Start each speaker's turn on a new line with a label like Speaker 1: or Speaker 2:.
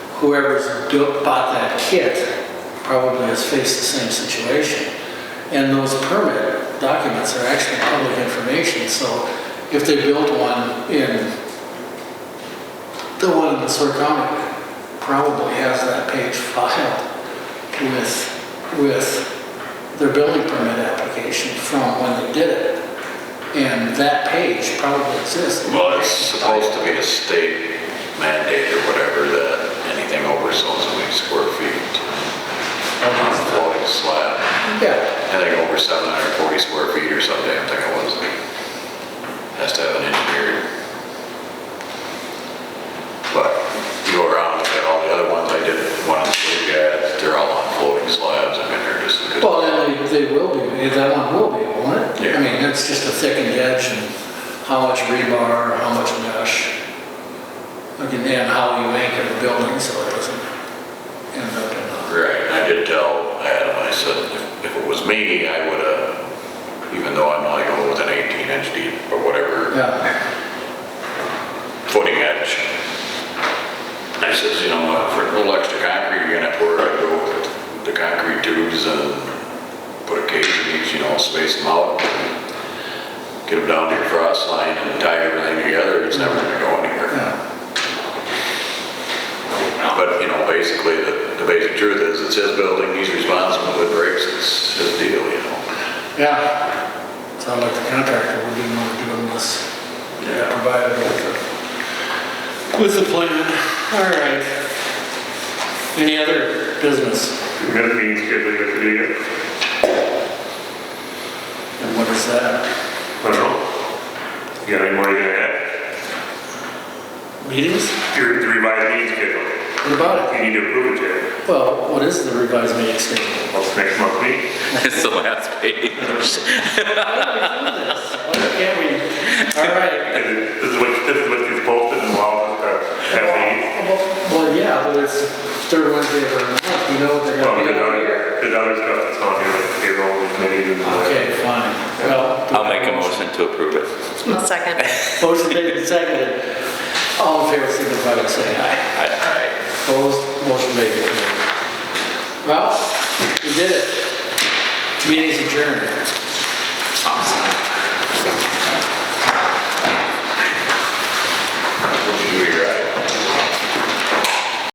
Speaker 1: whoever's built, bought that kit probably has faced the same situation. And those permit documents are actually public information, so if they built one in, the one in Seward County probably has that page filed with, with their building permit application from when they did it. And that page probably exists.
Speaker 2: Well, it's supposed to be a state mandate or whatever that anything over so and so many square feet on a floating slab,
Speaker 1: Yeah,
Speaker 2: anything over 740 square feet or some damn thing it was, has to have an engineer. But you go around, look at all the other ones I did, one on the blue guy, they're all on floating slabs, I mean, they're just. as good.
Speaker 1: well, then they, they will be, that one will be, won't it? I
Speaker 2: Yeah.
Speaker 1: mean, it's just a thickened edge and how much rebar, how much mesh. Again, and how you anchor the building so it doesn't end up in
Speaker 2: Right, and I did tell Adam, I said, if- if it was me, I would have, even though I'm only going with an 18 inch deep or
Speaker 1: a,
Speaker 2: whatever
Speaker 1: yeah,
Speaker 2: footing edge. I says, you know, uh, for a little extra concrete, you're gonna have to worry about go with the concrete tubes and put a cage in each, you know, space them out. Get them down to your frost line and tie everything together, it's never gonna go anywhere.
Speaker 1: yeah,
Speaker 2: But, you know, basically, the, the basic truth is, it's his building, he's responsible, if it breaks, it's his deal, you know?
Speaker 1: yeah. Sound like the contractor would be more doing this, yeah, provided with the, with the plan. All right. Any other business?
Speaker 3: We got meetings scheduled yet to do yet?
Speaker 1: And what is that?
Speaker 3: I don't know. You got any more you gotta add?
Speaker 1: Meetings?
Speaker 3: Your the revised meeting schedule,
Speaker 1: What about it?
Speaker 3: you need to approve it, Jay.
Speaker 1: Well, what is the revised meeting schedule?
Speaker 3: What's next month's meeting?
Speaker 4: It's the last page.
Speaker 1: Why can't we? All right.
Speaker 3: Is it- This is what, this is what is posted and allowed us to have meetings?
Speaker 1: Well, yeah, but it's third Wednesday of every month, you know what they're
Speaker 3: Well,
Speaker 1: gonna be
Speaker 3: there's
Speaker 1: over here.
Speaker 3: other, there's other stuff that's on here, like payroll, and committees and all that.
Speaker 1: Okay, fine. Well.
Speaker 4: I'll make a motion to approve it.
Speaker 5: I'll second.
Speaker 1: Motion made and seconded. All in favor, signify by saying aye.
Speaker 4: I- I-
Speaker 1: Opposed, motion made. Well, we did it. Meeting's adjourned.